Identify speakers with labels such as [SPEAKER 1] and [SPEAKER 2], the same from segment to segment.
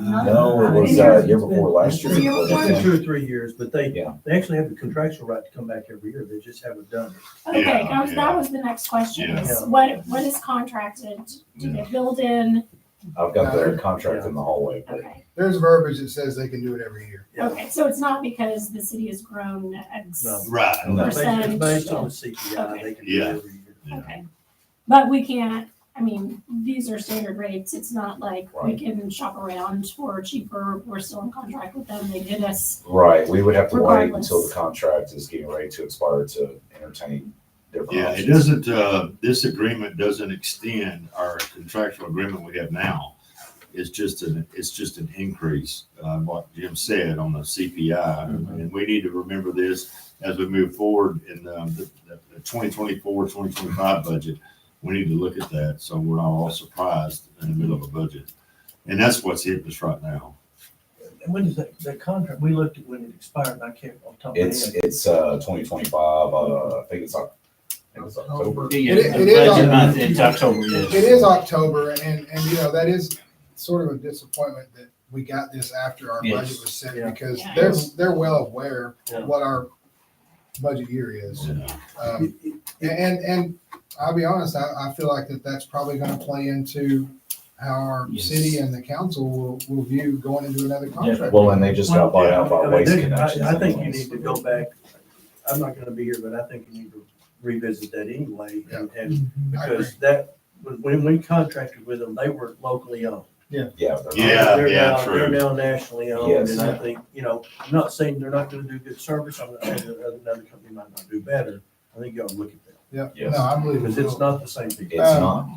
[SPEAKER 1] No, it was, uh, year before last year.
[SPEAKER 2] Year before.
[SPEAKER 3] It's been two or three years, but they,
[SPEAKER 1] Yeah.
[SPEAKER 3] they actually have the contractual right to come back every year. They just haven't done it.
[SPEAKER 2] Okay,
[SPEAKER 4] Yeah,
[SPEAKER 2] that was,
[SPEAKER 4] yeah.
[SPEAKER 2] that was the next question, is
[SPEAKER 3] Yeah.
[SPEAKER 2] what, what is contracted? Do they build in?
[SPEAKER 1] I've got their contract in the hallway, but
[SPEAKER 2] Okay,
[SPEAKER 5] There's verbiage that says they can do it every year.
[SPEAKER 3] Yeah.
[SPEAKER 2] okay, so it's not because the city has grown X,
[SPEAKER 3] No.
[SPEAKER 4] Right.
[SPEAKER 1] No.
[SPEAKER 3] It's based- It's based on the CPI. They can do
[SPEAKER 4] Yeah.
[SPEAKER 3] it every year.
[SPEAKER 4] Yeah.
[SPEAKER 2] okay. But we can't, I mean, these are standard rates, it's not like we
[SPEAKER 1] Right.
[SPEAKER 2] can shop around for cheaper, we're still in contract with them, they did us.
[SPEAKER 1] right, we would have to wait until
[SPEAKER 2] Regardless.
[SPEAKER 1] the contract is getting ready to expire to entertain different
[SPEAKER 4] Yeah, it
[SPEAKER 1] options.
[SPEAKER 4] doesn't, uh, this agreement doesn't extend our contractual agreement we have now. It's just an, it's just an increase, uh, what Jim said on the CPI.
[SPEAKER 3] Mhm.
[SPEAKER 4] And we need to remember this as we move forward in, um, the, the 2024-2025 budget. We need to look at that, so we're not all surprised in the middle of a budget. And that's what's hitting us right now.
[SPEAKER 3] And when is that, that contract? We looked at when it expired. and I can't, off the top of my head.
[SPEAKER 1] It's, it's, uh, twenty twenty-five, uh, I think it's, Oc- I think it's October.
[SPEAKER 6] Yeah,
[SPEAKER 5] It-
[SPEAKER 6] the
[SPEAKER 5] it is
[SPEAKER 6] budget
[SPEAKER 5] on-
[SPEAKER 6] month, it's October, yes.
[SPEAKER 5] It is October and, and you know, that is sort of a disappointment that we got this after our budget
[SPEAKER 6] Yes.
[SPEAKER 5] was set
[SPEAKER 3] Yeah.
[SPEAKER 5] because
[SPEAKER 2] Yeah.
[SPEAKER 5] they're, they're well aware
[SPEAKER 3] Yeah.
[SPEAKER 5] what our budget year is.
[SPEAKER 4] Yeah.
[SPEAKER 5] Um, And, and, and I'll be honest, I, I feel like that that's probably gonna play into how our
[SPEAKER 6] Yes.
[SPEAKER 5] city and the council will, will view going into another contract.
[SPEAKER 1] Well, and they just got bought out
[SPEAKER 3] I
[SPEAKER 1] by
[SPEAKER 3] mean,
[SPEAKER 1] Waste
[SPEAKER 3] there- I-
[SPEAKER 1] Connections.
[SPEAKER 3] I think you
[SPEAKER 1] anyways.
[SPEAKER 3] need to go back, I'm not gonna be here, but I think you need to revisit that anyway, and, and
[SPEAKER 5] I agree.
[SPEAKER 3] because that, when- when we contracted with them, they were locally owned.
[SPEAKER 1] Yeah. they're not-
[SPEAKER 4] Yeah.
[SPEAKER 3] They're now-
[SPEAKER 4] true.
[SPEAKER 3] They're now nationally owned,
[SPEAKER 1] Yes.
[SPEAKER 3] and I think, you know, I'm not saying they're not gonna do good service, I'm not saying that another company might not do better, I think you ought to look at that,
[SPEAKER 5] Yeah,
[SPEAKER 1] Yes.
[SPEAKER 5] no, I believe
[SPEAKER 3] because
[SPEAKER 5] it
[SPEAKER 3] it's
[SPEAKER 5] will.
[SPEAKER 3] not the same people.
[SPEAKER 1] It's
[SPEAKER 5] Um,
[SPEAKER 1] not.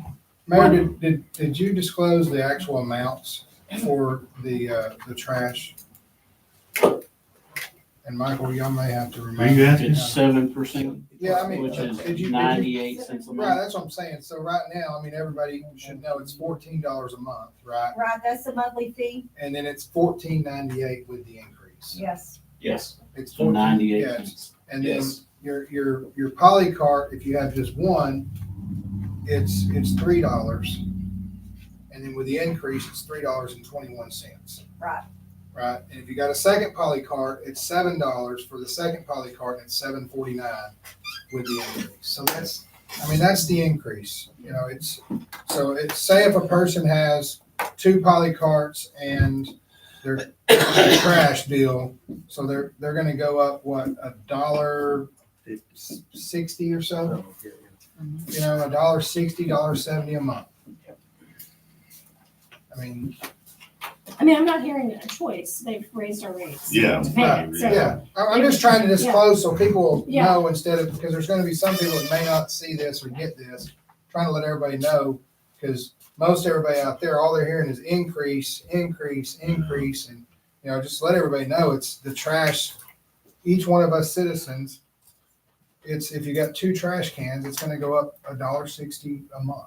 [SPEAKER 5] Mayor, did, did, did you disclose the actual amounts for the, uh, the trash? And Michael, y'all may have to
[SPEAKER 4] Were you
[SPEAKER 5] remind.
[SPEAKER 4] asking?
[SPEAKER 6] It's seven percent,
[SPEAKER 5] Yeah, I mean,
[SPEAKER 6] which
[SPEAKER 5] did you- did you-
[SPEAKER 6] is ninety-eight cents a
[SPEAKER 5] Right,
[SPEAKER 6] month.
[SPEAKER 5] that's what I'm saying. So right now, I mean, everybody should know it's fourteen dollars a month, right?
[SPEAKER 7] Right, that's the monthly fee,
[SPEAKER 5] And then it's fourteen ninety-eight with the increase.
[SPEAKER 7] yes.
[SPEAKER 6] Yes.
[SPEAKER 5] It's
[SPEAKER 6] So
[SPEAKER 5] fourteen,
[SPEAKER 6] ninety-eight
[SPEAKER 5] yeah,
[SPEAKER 6] cents.
[SPEAKER 5] And then
[SPEAKER 6] Yes.
[SPEAKER 5] your, your, your poly cart, if you have just one, it's, it's three dollars. And then with the increase, it's three dollars and twenty-one cents.
[SPEAKER 7] Right.
[SPEAKER 5] Right, and if you got a second poly cart, it's seven dollars for the second poly cart, and it's seven forty-nine with the increase. So that's, I mean, that's the increase, you know, it's, so it's, say if a person has two poly carts and their trash bill, so they're, they're gonna go up, what, a dollar s- sixty or so?
[SPEAKER 3] So, yeah, yeah.
[SPEAKER 5] You know, a dollar sixty, dollar seventy a month. I mean,
[SPEAKER 2] I mean, I'm not hearing a choice, they've raised our rates.
[SPEAKER 4] Yeah.
[SPEAKER 2] To pay it, so-
[SPEAKER 5] yeah, I- I'm just trying to disclose so people
[SPEAKER 2] Yeah.
[SPEAKER 5] know instead of, because there's gonna be some people that may not see this or get this. Trying to let everybody know, because most everybody out there, all they're hearing is increase, increase, increase, and, you know, just let everybody know, it's the trash. Each one of us citizens, it's, if you got two trash cans, it's gonna go up a dollar sixty a month.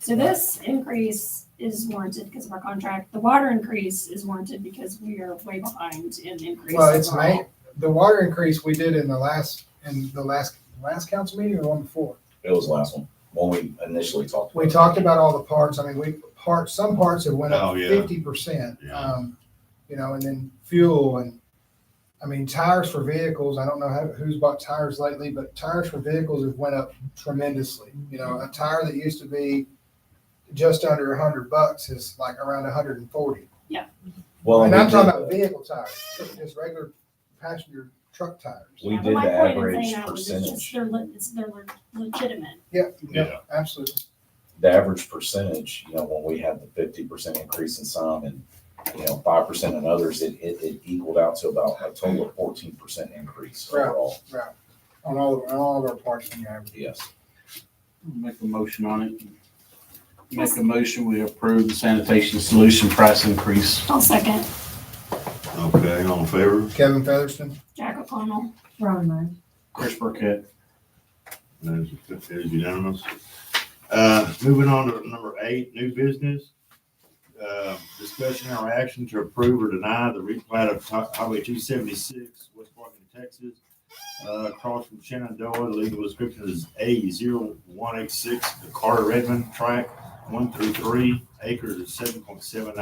[SPEAKER 2] So this increase is warranted because of our contract, the water increase is warranted because we are way behind in increase.
[SPEAKER 5] Well, it's
[SPEAKER 2] overall.
[SPEAKER 5] ma- the water increase we did in the last, in the last, last council meeting or the one before?
[SPEAKER 1] It was the last one, when we initially talked.
[SPEAKER 5] We talked about all the parts. I mean, we part, some parts have went
[SPEAKER 4] Oh,
[SPEAKER 5] up
[SPEAKER 4] yeah.
[SPEAKER 5] fifty percent.
[SPEAKER 4] Yeah.
[SPEAKER 5] Um, you know, and then fuel and, I mean, tires for vehicles. I don't know how, who's bought tires lately, but tires for vehicles have went up tremendously. You know, a tire that used to be just under a hundred bucks is like around a hundred and forty.
[SPEAKER 1] Well,
[SPEAKER 5] And
[SPEAKER 1] we
[SPEAKER 5] I'm talking
[SPEAKER 1] did
[SPEAKER 5] about
[SPEAKER 1] the-
[SPEAKER 5] vehicle tires, just regular passenger truck tires.
[SPEAKER 1] We
[SPEAKER 2] Yeah, but
[SPEAKER 1] did
[SPEAKER 2] my
[SPEAKER 1] the
[SPEAKER 2] point in
[SPEAKER 1] average
[SPEAKER 2] saying that was it's just
[SPEAKER 1] percentage.
[SPEAKER 2] They're, le- it's, they're le- legitimate.
[SPEAKER 5] Yeah, yeah,
[SPEAKER 4] Yeah.
[SPEAKER 5] absolutely.
[SPEAKER 1] the average percentage, you know, when we had the fifty percent increase in some and, you know, five percent in others, it, it, it equaled out to about a total of fourteen percent increase
[SPEAKER 5] Right.
[SPEAKER 1] overall.
[SPEAKER 5] On all, on all of our parts on the average.
[SPEAKER 1] Yes.
[SPEAKER 6] Make a motion on it. Make a motion, we approve the sanitation solution price increase.
[SPEAKER 2] I'll second
[SPEAKER 4] Okay, all in favor?
[SPEAKER 5] Kevin Featherston?
[SPEAKER 2] Jack O'Connell.
[SPEAKER 7] Ron Meyer.
[SPEAKER 6] Chris Burkett.
[SPEAKER 4] That is that is unanimous. Uh, Moving on to number eight, new business. Uh, Discussion or action to approve or deny the replat of Hi- Highway 276, West Parkin, Texas, uh, across from Shenandoah. The legal description is A0186, the Carter Redmond Track 1 through 3, acres of 7.7